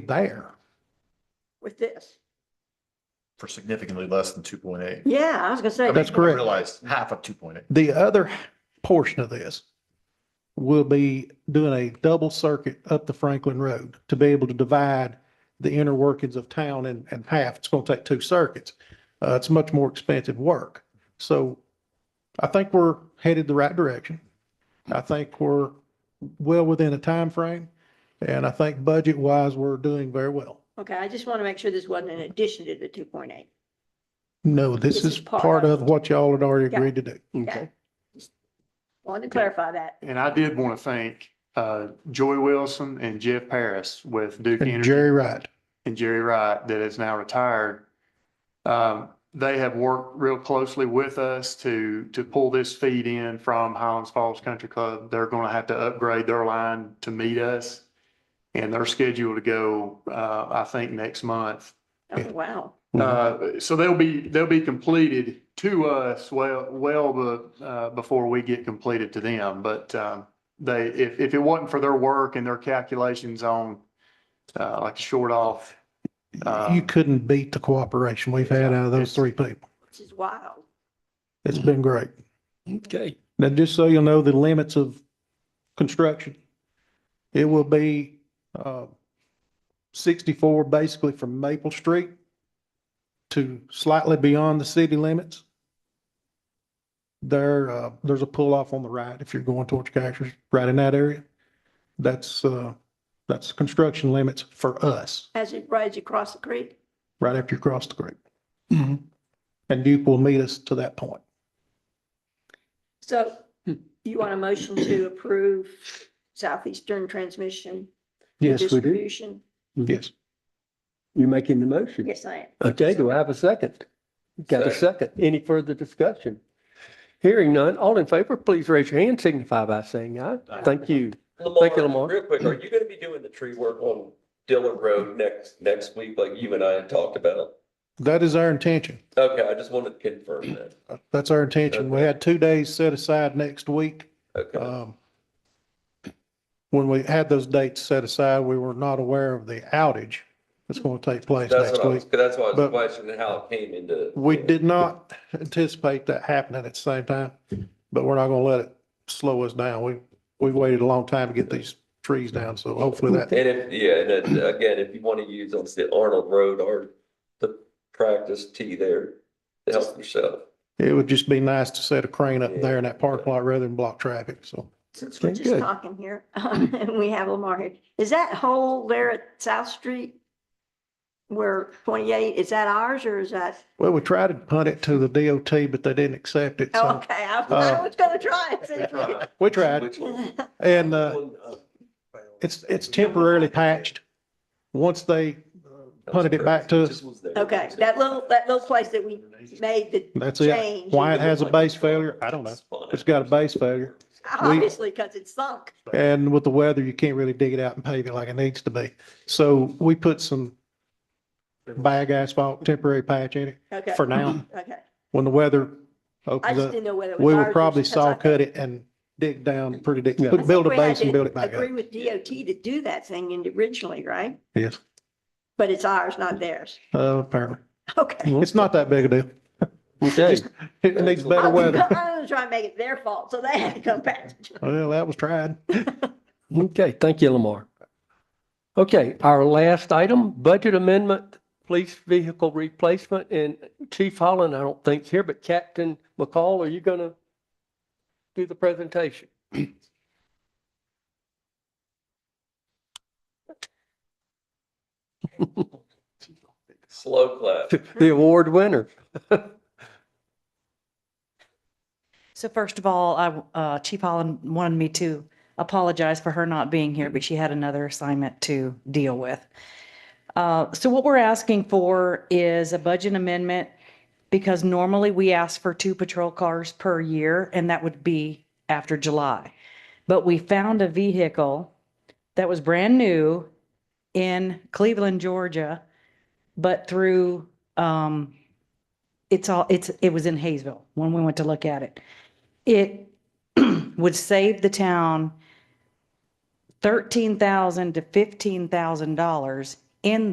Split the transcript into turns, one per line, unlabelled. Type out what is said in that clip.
be there.
with this.
for significantly less than two point eight.
Yeah, I was gonna say,
That's correct.
Realized half of two point eight.
The other portion of this will be doing a double circuit up the Franklin Road to be able to divide the inner workings of town in, in half. It's going to take two circuits. Uh, it's much more expensive work. So I think we're headed the right direction. I think we're well within a time frame, and I think budget wise, we're doing very well.
okay, I just want to make sure this wasn't in addition to the two point eight.
No, this is part of what y'all had already agreed to do.
Okay. Wanted to clarify that.
And I did want to thank uh, Joy Wilson and Jeff Paris with Duke
And
Energy
Jerry Wright.
and Jerry Wright that is now retired. Um, They have worked real closely with us to, to pull this feed in from Highlands Falls Country Club. They're going to have to upgrade their line to meet us. And they're scheduled to go, uh, I think, next month.
Oh, wow.
Uh, So they'll be, they'll be completed to us well, well, be- uh, before we get completed to them. But um, they, if, if it wasn't for their work and their calculations on uh, like short off.
You
uh,
couldn't beat the cooperation we've had out of those
It's-
three people.
This is wild.
It's been great.
Okay,
Now, just so you'll know, the limits of construction, it will be, uh, sixty-four basically from Maple Street to slightly beyond the city limits. There, uh, there's a pull-off on the right if you're going towards Cactus, right in that area. That's, uh, that's construction limits for us,
As it rides across the creek,
right after you cross the creek. Mm-hmm. And Duke will meet us to that point.
so
Hmm.
you want a motion to approve southeastern transmission? and
Yes, we do.
distribution?
Yes.
you're making the motion.
Yes, I am.
Okay, do I have a second? Got a second. Any further discussion? Hearing none, all in favor, please raise your hand, signify by saying aye. Thank you. Thank you, Lamar.
Lamar, real quick, are you gonna be doing the tree work on Dillon Road next, next week, like you and I had talked about?
That is our intention.
Okay, I just wanted to confirm that.
That's our intention. We had two days set aside next week.
Okay,
Um, When we had those dates set aside, we were not aware of the outage that's going to take place
that's
next
what I was,
week.
that's why I
But-
was questioning how it came into.
We did not anticipate that happening at the same time, but we're not going to let it slow us down. We, we waited a long time to get these trees down, so hopefully that,
And if, yeah, and then, again, if you wanna use, on the Arnold Road or the practice tee there to help yourself.
it would just be nice to set a crane up there in that parking lot rather than block traffic, so.
Since we're
Okay,
just
good.
talking here, um, and we have Lamar here, is that hole there at South Street? Where twenty-eight, is that ours or is that,
Well, we tried to punt it to the DOT, but they didn't accept it,
oh,
so
okay, I I
Uh,
was gonna try and see if we could-
we tried.
Which one?
And, uh,
One, uh,
It's, it's temporarily patched. Once they punted it back to us,
This was there.
Okay, that little, that little place that we made the
that's it.
change.
Why it has a base failure, I don't know. It's got a base failure.
Obviously, because it's sunk.
And with the weather, you can't really dig it out and pave it like it needs to be. So we put some bag asphalt, temporary patch in it
Okay,
for now.
okay.
When the weather
I
opens
just
up,
didn't know whether it was.
we will
ours or-
probably
'cause I
saw cut
think-
it and dig down pretty deep,
Yeah.
I think
build a
we had
base and
to
build it back up.
Agree with DOT to do that thing in- originally, right?
Yes,
But it's ours, not theirs.
uh, apparently.
Okay.
It's not that big a deal.
Okay,
Just- It needs better
I'm
weather.
gonna try and make it their fault, so they had to come back.
Well, that was tried.
okay, thank you, Lamar. Okay, our last item, budget amendment, police vehicle replacement, and Chief Holland, I don't think's here, but Captain McCall, are you gonna do the presentation?
Slow clap.
The award winner.
So first of all, I, uh, Chief Holland wanted me to apologize for her not being here, but she had another assignment to deal with. Uh, so what we're asking for is a budget amendment because normally we ask for two patrol cars per year and that would be after July. But we found a vehicle that was brand new in Cleveland, Georgia, but through, um, it's all, it's, it was in Hayesville when we went to look at it. It would save the town thirteen thousand to fifteen thousand dollars in